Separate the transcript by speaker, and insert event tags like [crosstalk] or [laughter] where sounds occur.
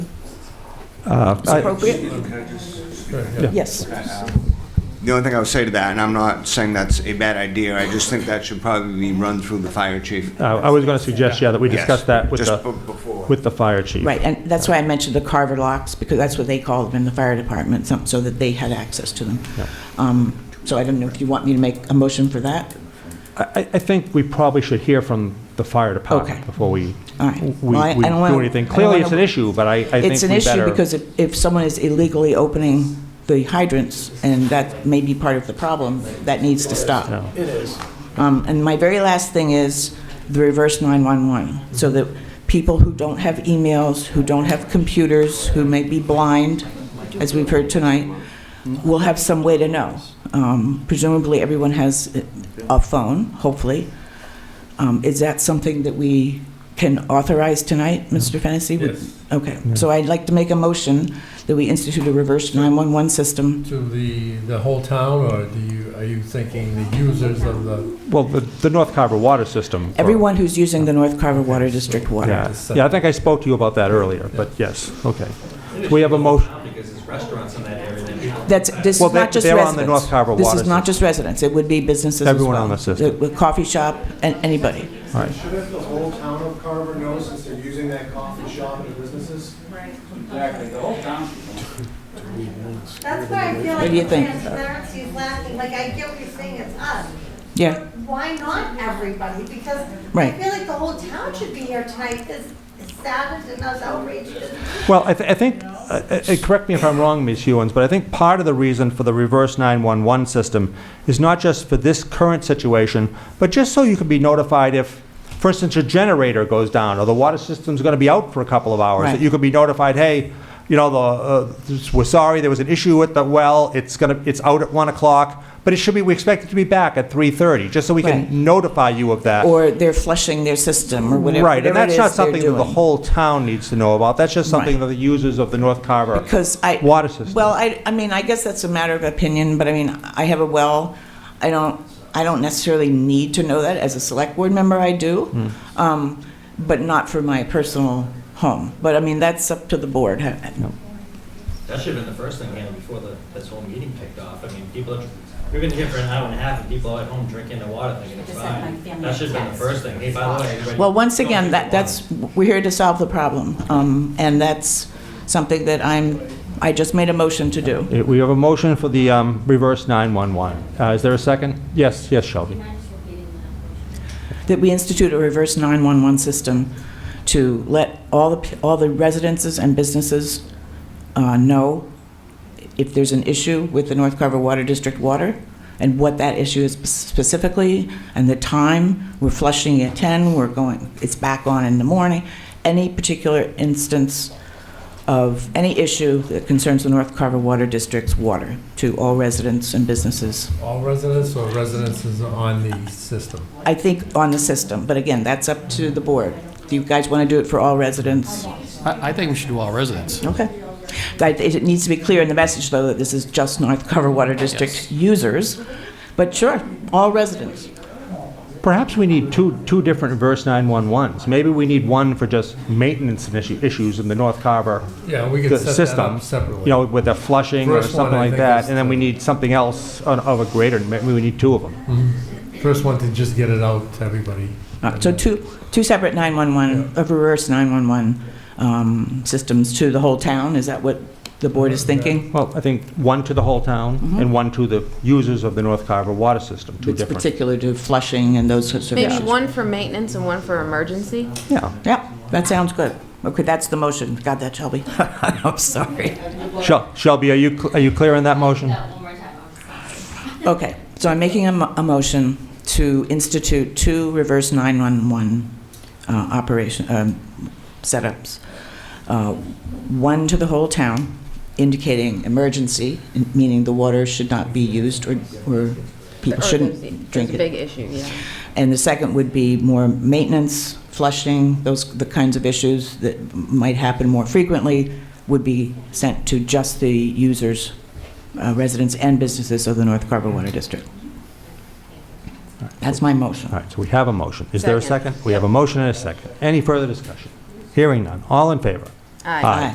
Speaker 1: Uh, I-
Speaker 2: appropriate? Yes.
Speaker 3: The only thing I would say to that, and I'm not saying that's a bad idea, I just think that should probably be run through the fire chief.
Speaker 1: uh, I was going to suggest, yeah, that we
Speaker 3: Yes,
Speaker 1: discuss that with
Speaker 3: just
Speaker 1: the,
Speaker 3: b- before.
Speaker 1: with the fire chief.
Speaker 2: Right, and that's why I mentioned the Carver locks, because that's what they called them in the fire department, some- so that they had access to them. Um, So I don't know if you want me to make a motion for that?
Speaker 1: I, I- I think we probably should hear from the fire department
Speaker 2: Okay.
Speaker 1: before we,
Speaker 2: All right.
Speaker 1: we
Speaker 2: Well, I-
Speaker 1: we
Speaker 2: I don't wanna-
Speaker 1: do anything.
Speaker 2: I don't
Speaker 1: Clearly,
Speaker 2: wanna-
Speaker 1: it's an issue, but I, I think we better.
Speaker 2: It's an issue because if, if someone is illegally opening the hydrants, and that may be part of the problem, that needs to stop.
Speaker 1: Yeah.
Speaker 2: It is. And my very last thing is the reverse 911, so that people who don't have emails, who don't have computers, who may be blind, as we've heard tonight, will have some way to know. Um, Presumably, everyone has a- a phone, hopefully. Um, Is that something that we can authorize tonight, Mr. Fennessy? Yes. Okay, so I'd like to make a motion that we institute a reverse 911 system.
Speaker 4: To the, the whole town, or do you, are you thinking the users of the?
Speaker 1: Well, the, the North Carver water system. for-
Speaker 2: Everyone who's using the North Carver Water District water.
Speaker 1: Yeah,
Speaker 5: uh,
Speaker 1: yeah, I think I spoke to you about that earlier, but yes, okay. We have a motion,
Speaker 6: Because there's restaurants in that area that
Speaker 2: That's, this
Speaker 1: Well,
Speaker 2: is
Speaker 1: they-
Speaker 2: not just residents.
Speaker 1: they're on the North Carver
Speaker 2: This
Speaker 1: water
Speaker 2: is not just residents, it would be businesses as well.
Speaker 1: Everyone on the system. Uh,
Speaker 2: The- the Coffee shop, and anybody.
Speaker 1: all right.
Speaker 5: Shouldn't the whole town of Carver know since they're using that coffee shop and the businesses? Exactly, the whole town.
Speaker 7: That's why I feel
Speaker 2: What
Speaker 7: like
Speaker 2: do you
Speaker 7: the
Speaker 2: think?
Speaker 7: transparency is lacking, like I get what you're saying, it's us.
Speaker 2: Yeah.
Speaker 7: But Why not everybody? Because I
Speaker 2: Right.
Speaker 7: feel like the whole town should be here tonight, as as savage and as outrageous as
Speaker 1: Well, I, th- I think, uh, uh, correct me if I'm wrong, Ms. Hewens, but I think part of the reason for the reverse 911 system is not just for this current situation, but just so you can be notified if, for instance, your generator goes down, or the water system's going to be out for a couple of hours,
Speaker 2: Right.
Speaker 1: that you could be notified, hey, you know, the, uh, this- we're sorry, there was an issue with the well, it's going to, it's out at 1 o'clock, but it should be, we expect it to be back at 3:30, just so we
Speaker 2: Right.
Speaker 1: can notify you of that.
Speaker 2: Or they're flushing their system, or whatever
Speaker 1: Right, and
Speaker 2: whatever it
Speaker 1: that's
Speaker 2: is
Speaker 1: not
Speaker 2: they're
Speaker 1: something that the
Speaker 2: doing.
Speaker 1: whole town needs to know about. That's just something
Speaker 2: Right.
Speaker 1: that the users of the North Carver
Speaker 2: Because I.
Speaker 1: water system.
Speaker 2: Well, I, I mean, I guess that's a matter of opinion, but I mean, I have a well. I don't, I don't necessarily need to know that. As a select board member, I do. Um, but not for my personal home. But I mean, that's up to the board.
Speaker 6: That should have been the first thing handled before the, this whole meeting kicked off. I mean, people, are- we've been here for an hour and a half, and people are at home drinking their water thinking it's fine. That should have been the first thing. Hey, by the way, everybody.
Speaker 2: Well, once
Speaker 6: don't
Speaker 2: again,
Speaker 6: drink
Speaker 2: that,
Speaker 6: your water.
Speaker 2: that's, we're here to solve the problem. Um, and that's something that I'm, I just made a motion to do.
Speaker 1: Uh, We have a motion for the um, reverse 911. Uh, Is there a second? Yes, yes, Shelby.
Speaker 2: that we institute a reverse 911 system to let all the, p- all the residences and businesses uh, know if there's an issue with the North Carver Water District water, and what that issue is specifically, and the time, we're flushing at 10, we're going, it's back on in the morning, any particular instance of any issue that concerns the North Carver Water District's water to all residents and businesses.
Speaker 4: All residents or residences on the system?
Speaker 2: I think on the system, but again, that's up to the board. Do you guys want to do it for all residents?
Speaker 8: I, I think we should do all residents.
Speaker 2: Okay. That- It needs to be clear in the message, though, that this is just North Carver Water District users, but sure, all residents.
Speaker 1: Perhaps we need two, two different reverse 911s. Maybe we need one for just maintenance and issue- issues in the North Carver
Speaker 4: Yeah, we
Speaker 1: the
Speaker 4: could set that
Speaker 1: system.
Speaker 4: up separately.
Speaker 1: You know, with the flushing or
Speaker 4: First one,
Speaker 1: something
Speaker 4: I
Speaker 1: like
Speaker 4: think,
Speaker 1: that.
Speaker 4: is
Speaker 1: And then we
Speaker 4: the-
Speaker 1: need something else on- of a greater, maybe we need two of them.
Speaker 4: First one to just get it out to everybody.
Speaker 2: Uh, So two, two separate 911, uh, reverse 911 um, systems to the whole town, is that what the board is thinking?
Speaker 1: Well, I think one to the whole town and one to the users of the North Carver water system, two
Speaker 2: Mm-hmm. It's
Speaker 1: different.
Speaker 2: particular to flushing and those sorts of issues.
Speaker 9: Maybe one for maintenance and one for emergency?
Speaker 1: Yeah.
Speaker 2: Yeah, that sounds good. Okay, that's the motion. Got that, Shelby? [laughs] I'm sorry.
Speaker 1: Shel- Shelby, are you, cl- are you clear on that motion?
Speaker 2: Okay, so I'm making a, mo- a motion to institute two reverse 911 uh, operation, um, setups. Uh, One to the whole town, indicating emergency, in- meaning the water should not be used or, or people shouldn't drink
Speaker 9: It's a
Speaker 2: it.
Speaker 9: big issue, yeah.
Speaker 2: And the second would be more maintenance, flushing, those, the kinds of issues that might happen more frequently would be sent to just the users, uh, residents and businesses of the North Carver Water District. That's my motion.
Speaker 1: All right, so we have a motion. Is there a
Speaker 9: Second.
Speaker 1: second? We have a motion and a second. Any further discussion? Hearing none. All in favor?
Speaker 9: Aye.
Speaker 2: Aye.